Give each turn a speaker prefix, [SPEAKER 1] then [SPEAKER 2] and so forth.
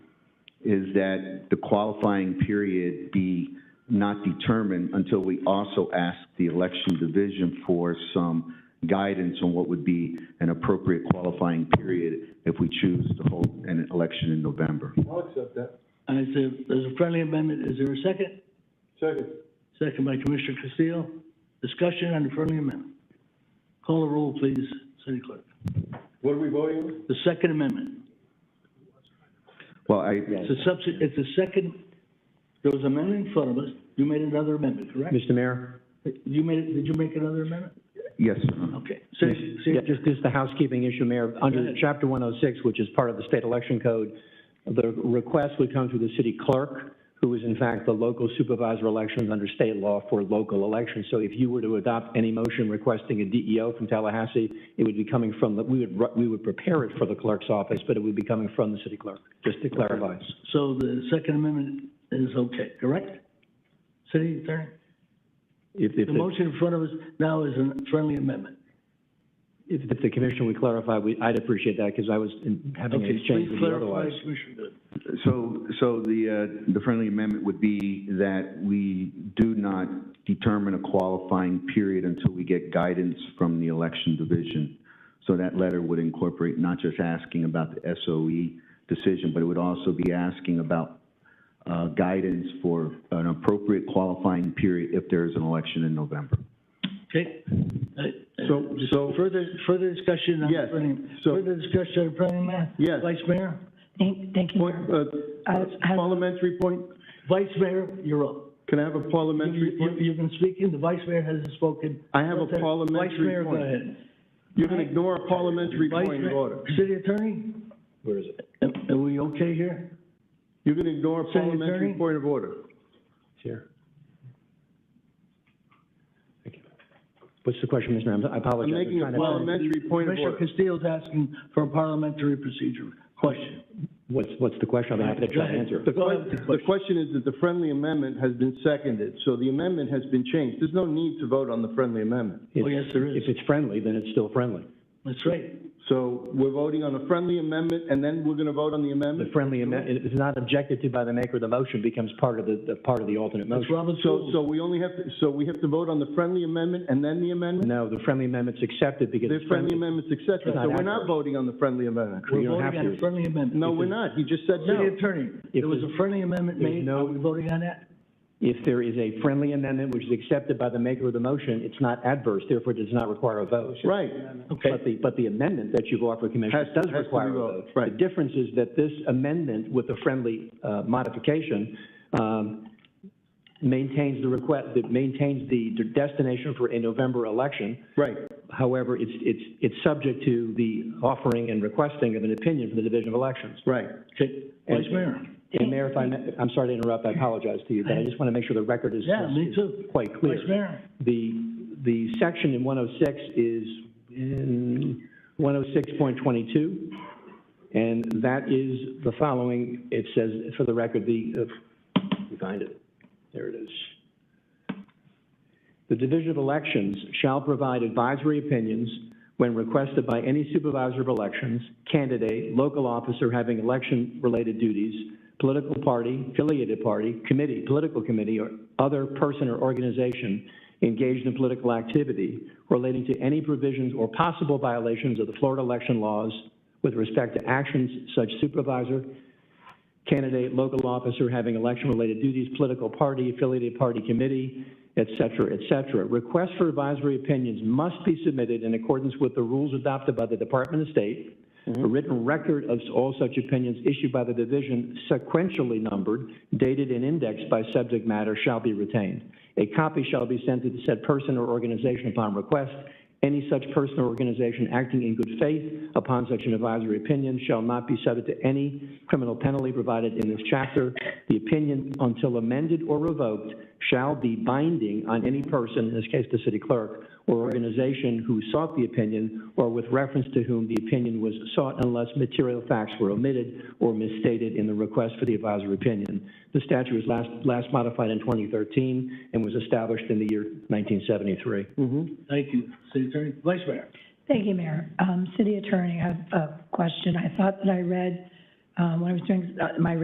[SPEAKER 1] is that the qualifying period be not determined until we also ask the election division for some guidance on what would be an appropriate qualifying period if we choose to hold an election in November.
[SPEAKER 2] I'll accept that.
[SPEAKER 3] All right, so there's a friendly amendment. Is there a second?
[SPEAKER 2] Second.
[SPEAKER 3] Second by Commissioner Castillo. Discussion on the friendly amendment. Call the roll, please, City Clerk.
[SPEAKER 2] What are we voting on?
[SPEAKER 3] The second amendment.
[SPEAKER 1] Well, I,
[SPEAKER 3] It's a subs- it's a second, there was an amendment in front of us. You made another amendment, correct?
[SPEAKER 4] Mr. Mayor?
[SPEAKER 3] You made, did you make another amendment?
[SPEAKER 1] yes, sir.
[SPEAKER 3] Okay. City,
[SPEAKER 4] Yeah,
[SPEAKER 3] City-
[SPEAKER 4] Just, just the housekeeping issue, Mayor.
[SPEAKER 3] Go
[SPEAKER 4] Under
[SPEAKER 3] ahead.
[SPEAKER 4] Chapter 106, which is part of the state election code, the request would come through the city clerk, who is in fact the local supervisor of elections under state law for local elections. So if you were to adopt any motion requesting a DEO from Tallahassee, it would be coming from, the we would, ru- we would prepare it for the clerk's office, but it would be coming from the city clerk, just to clarify.
[SPEAKER 3] so the second amendment is okay, correct? City Attorney?
[SPEAKER 4] If,
[SPEAKER 3] The
[SPEAKER 4] if, the-
[SPEAKER 3] motion in front of us now is a friendly amendment.
[SPEAKER 4] if if the commission would clarify, we, I'd appreciate that, because I was in- having an
[SPEAKER 3] Okay,
[SPEAKER 4] exchange
[SPEAKER 3] please
[SPEAKER 4] with you
[SPEAKER 3] clarify,
[SPEAKER 4] otherwise.
[SPEAKER 3] Commissioner Good.
[SPEAKER 1] So, so the, uh, the friendly amendment would be that we do not determine a qualifying period until we get guidance from the election division. So that letter would incorporate not just asking about the SOE decision, but it would also be asking about, uh, guidance for an appropriate qualifying period if there is an election in November.
[SPEAKER 3] Okay. Uh, uh,
[SPEAKER 2] So-
[SPEAKER 3] just
[SPEAKER 2] so-
[SPEAKER 3] Further, further discussion on the
[SPEAKER 2] Yes,
[SPEAKER 3] friendly,
[SPEAKER 2] so-
[SPEAKER 3] further discussion on the friendly amendment?
[SPEAKER 2] Yes.
[SPEAKER 3] Vice Mayor?
[SPEAKER 5] Thank, thank you.
[SPEAKER 2] Point,
[SPEAKER 5] sir.
[SPEAKER 2] uh,
[SPEAKER 5] I- I-
[SPEAKER 2] parliamentary point,
[SPEAKER 3] Vice Mayor, you're up.
[SPEAKER 2] can I have a parliamentary
[SPEAKER 3] You-
[SPEAKER 2] point?
[SPEAKER 3] You've been speaking, the vice mayor hasn't spoken.
[SPEAKER 2] I have a
[SPEAKER 3] Vice Mayor,
[SPEAKER 2] parliamentary
[SPEAKER 3] go
[SPEAKER 2] point.
[SPEAKER 3] ahead.
[SPEAKER 2] You can ignore a parliamentary
[SPEAKER 3] Vice
[SPEAKER 2] point of
[SPEAKER 3] Mayor-
[SPEAKER 2] order.
[SPEAKER 3] City Attorney,
[SPEAKER 4] Where is it?
[SPEAKER 3] am- are we okay here?
[SPEAKER 2] You can ignore a
[SPEAKER 3] City
[SPEAKER 2] parliamentary
[SPEAKER 3] Attorney?
[SPEAKER 2] point of order.
[SPEAKER 4] It's here. Thank you. What's the question, Mr. Mayor? I apologize.
[SPEAKER 2] I'm making a
[SPEAKER 4] trying to-
[SPEAKER 2] parliamentary point of
[SPEAKER 3] Commissioner
[SPEAKER 2] order.
[SPEAKER 3] Castillo's asking for a parliamentary procedure question.
[SPEAKER 4] What's, what's the question? I'll be happy to try to answer.
[SPEAKER 2] The
[SPEAKER 3] Go ahead
[SPEAKER 2] que-
[SPEAKER 3] with the
[SPEAKER 2] the
[SPEAKER 3] question.
[SPEAKER 2] question is that the friendly amendment has been seconded, so the amendment has been changed. There's no need to vote on the friendly amendment.
[SPEAKER 3] Oh, yes, there is.
[SPEAKER 4] If it's friendly, then it's still friendly.
[SPEAKER 3] That's right.
[SPEAKER 2] So we're voting on a friendly amendment, and then we're going to vote on the
[SPEAKER 4] The
[SPEAKER 2] amendment?
[SPEAKER 4] friendly amendment, if it's not objected to by the maker of the motion, becomes part of the, the, part of the alternate
[SPEAKER 3] That's
[SPEAKER 4] motion.
[SPEAKER 3] Robert's
[SPEAKER 2] So,
[SPEAKER 3] rules.
[SPEAKER 2] so we only have, to so we have to vote on the friendly amendment and then the amendment?
[SPEAKER 4] No, the friendly amendment's accepted because
[SPEAKER 2] The
[SPEAKER 4] it's
[SPEAKER 2] friendly
[SPEAKER 4] friendly.
[SPEAKER 2] amendment's accepted,
[SPEAKER 4] It's not
[SPEAKER 2] so we're not
[SPEAKER 4] accurate.
[SPEAKER 2] voting on the friendly amendment.
[SPEAKER 4] you
[SPEAKER 3] We're
[SPEAKER 4] don't
[SPEAKER 3] voting
[SPEAKER 4] have
[SPEAKER 3] on
[SPEAKER 4] to.
[SPEAKER 3] a friendly amendment.
[SPEAKER 2] No,
[SPEAKER 3] If
[SPEAKER 2] we're
[SPEAKER 3] it's-
[SPEAKER 2] not. He just said no.
[SPEAKER 3] City Attorney,
[SPEAKER 4] If
[SPEAKER 3] there was a
[SPEAKER 4] it's-
[SPEAKER 3] friendly amendment
[SPEAKER 4] there's
[SPEAKER 3] made,
[SPEAKER 4] no-
[SPEAKER 3] are we voting on that?
[SPEAKER 4] If there is a friendly amendment which is accepted by the maker of the motion, it's not adverse, therefore it does not require a vote.
[SPEAKER 2] Right.
[SPEAKER 3] Okay.
[SPEAKER 4] But the, but the amendment that you've offered, Commissioner,
[SPEAKER 2] Has- has
[SPEAKER 4] does
[SPEAKER 2] to be
[SPEAKER 4] require a
[SPEAKER 2] voted,
[SPEAKER 4] vote.
[SPEAKER 2] right.
[SPEAKER 4] The difference is that this amendment with the friendly uh, modification um, maintains the request, that maintains the destination for a November election.
[SPEAKER 2] Right.
[SPEAKER 4] However, it's, it's, it's subject to the offering and requesting of an opinion from the Division of Elections.
[SPEAKER 2] Right.
[SPEAKER 3] Okay, Vice Mayor.
[SPEAKER 4] And Mayor, if I, may- I'm sorry to interrupt, I apologize to you, but I just want to make sure the record is
[SPEAKER 3] Yeah, me
[SPEAKER 4] is
[SPEAKER 3] too.
[SPEAKER 4] quite clear.
[SPEAKER 3] Vice Mayor.
[SPEAKER 4] The, the section in 106 is in 106.22, and that is the following. It says, for the record, the, uh, let me find it. There it is. The Division of Elections shall provide advisory opinions when requested by any supervisor of elections, candidate, local officer having election-related duties, political party, affiliated party, committee, political committee, or other person or organization engaged in political activity relating to any provisions or possible violations of the Florida election laws with respect to actions such supervisor, candidate, local officer having election-related duties, political party, affiliated party committee, et cetera, et cetera. Requests for advisory opinions must be submitted in accordance with the rules adopted by the Department of State. A written record of all such opinions issued by the division sequentially numbered, dated and indexed by subject matter shall be retained. A copy shall be sent to the said person or organization upon request. Any such person or organization acting in good faith upon such an advisory opinion shall not be subject to any criminal penalty provided in this chapter. The opinion, until amended or revoked, shall be binding on any person, in this case the city clerk, or organization who sought the opinion or with reference to whom the opinion was sought unless material facts were omitted or misstated in the request for the advisory opinion. The statute was last, last modified in 2013 and was established in the year 1973.
[SPEAKER 3] Thank you, City Attorney. Vice Mayor.
[SPEAKER 5] Thank you, Mayor. Um, City Attorney, I have a question. I thought that I read, um, when I was doing uh, my